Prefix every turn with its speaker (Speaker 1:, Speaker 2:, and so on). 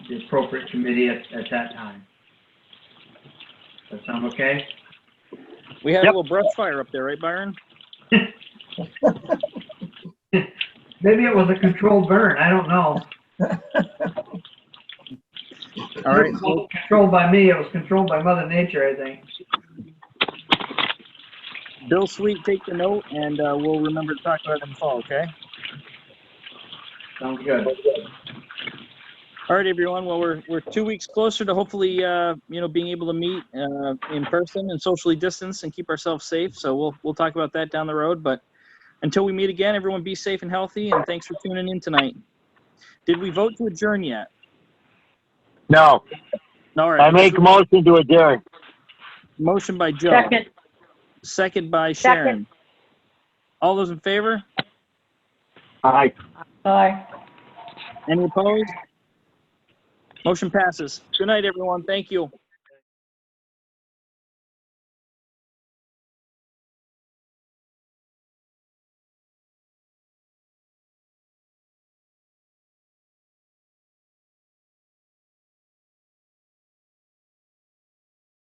Speaker 1: the appropriate committee at, at that time. Does that sound okay?
Speaker 2: We had a
Speaker 3: Yep.
Speaker 2: little brush fire up there, right, Byron?
Speaker 1: Maybe it was a controlled burn, I don't know.
Speaker 2: All right,
Speaker 1: It wasn't Controlled by me, it was controlled by Mother Nature, I think.
Speaker 2: Bill Sweet, take the note, and uh, we'll remember to talk about it in the fall, okay?
Speaker 1: Sounds good.
Speaker 2: All right, everyone. Well, we're we're two weeks closer to hopefully, uh, you know, being able to meet uh, in person and socially distance and keep ourselves safe. So we'll we'll talk about that down the road. But until we meet again, everyone be safe and healthy. And thanks for tuning in tonight. Did we vote to adjourn yet?
Speaker 3: No,
Speaker 2: All
Speaker 3: I
Speaker 2: right.
Speaker 3: make motion to adjourn.
Speaker 2: Motion by Joe.
Speaker 4: Second,
Speaker 2: Second by
Speaker 4: Second.
Speaker 2: Sharon. All those in favor?
Speaker 3: Aye.
Speaker 4: aye.
Speaker 2: Any opposed? Motion passes. Good night, everyone. Thank you.